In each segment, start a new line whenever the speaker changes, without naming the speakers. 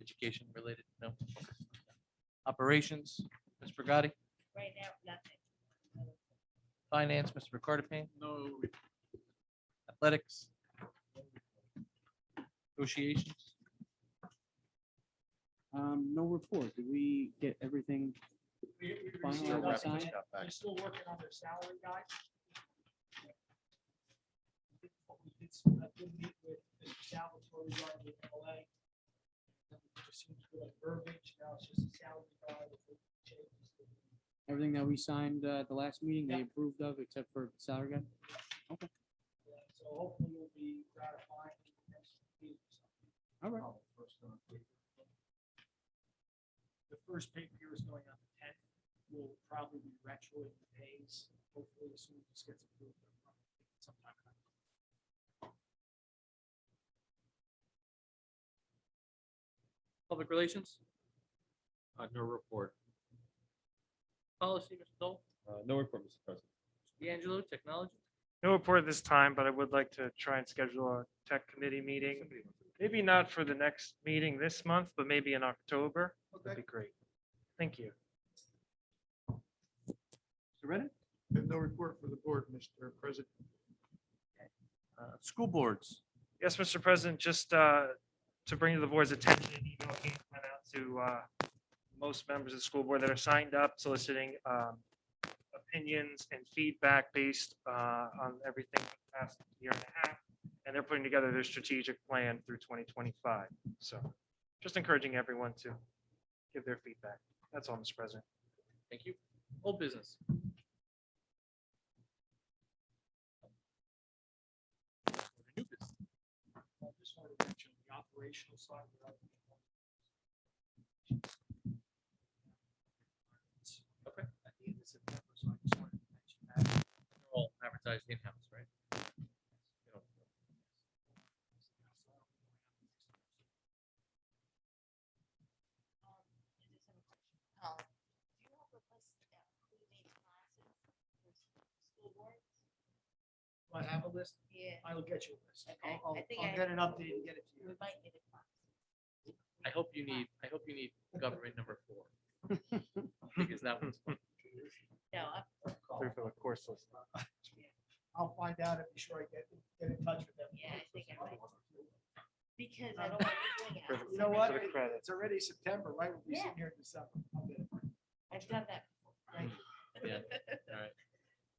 education related, no. Operations, Ms. Bragati,
Right now, nothing.
finance, Mr. Ricardo Payne,
No,
athletics. Negotiations,
Um, no report. Did we get everything?
we're
Final
still
or
working-
sign?
we're still working on their salary guide. But we did s- I did meet with Mr. Salvatore regarding the LA. That we just seem to like verbiage, now it's just a salary guide. with the changes that we-
Everything that we signed, uh, at the last meeting, they
Yeah.
approved of except for salary guide?
yeah, So hopefully it'll be gratifying. next week
All
or
right.
something. The first paper here is going on the tenth. We'll probably be retroing the pays, hopefully as soon as this gets approved. sometime in October.
public relations,
Uh, no report.
policy, Mr. Dole,
Uh, no report, Mr. President.
D'Angelo, technology.
No report this time, but I would like to try and schedule a tech committee meeting. Maybe not for the next meeting this month, but maybe in October. That'd be great. Thank you.
Mr. Reddick,
Have no report for the board, Mr. President.
uh, school boards,
Yes, Mr. President, just uh, to bring to the board's attention, an email came went out to uh, most members of the school board that are signed up soliciting um, opinions and feedback based uh, on everything for the past year and a half. And they're putting together their strategic plan through 2025. So just encouraging everyone to give their feedback. That's all, Mr. President.
thank you, old business. New business.
I just wanted to mention the operational side. without-
Okay.
At the end of September, so I just wanted to mention that.
They're All advertised in-house, right? You know,
Um, I just have a question. Um, Do you have a list of who made classes for s- school boards?
Do I have a list.
Yeah,
I will get you a list.
Okay,
I'll, I'll
I think
I'll
I-
get an update and get it to
we
you.
might need a class.
I hope you need, I hope you need government number four. Because that one's,
No, I'm
Through for the course list.
I'll find out and be sure I get, get in touch with them.
Yeah, I think I might. because
I
I
don't
don't want anything else.
You know what?
For the credits.
It's already September, right? We'll be
Yeah.
sitting here in December. I'll get it.
I've done that.
Thank you.
yeah, all right.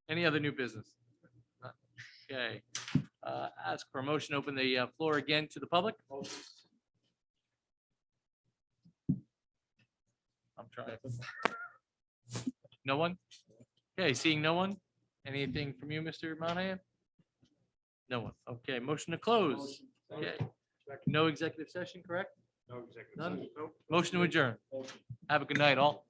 Any other new business? None. Okay. Uh, Ask for a motion, to open the uh, floor again to the public. I'm trying. No one? Okay, seeing no one? Anything from you, Mr. Monahan? No one. Okay, motion to close. Okay. No executive session, correct?
No executive.
None? Motion to adjourn. Have a good night, all.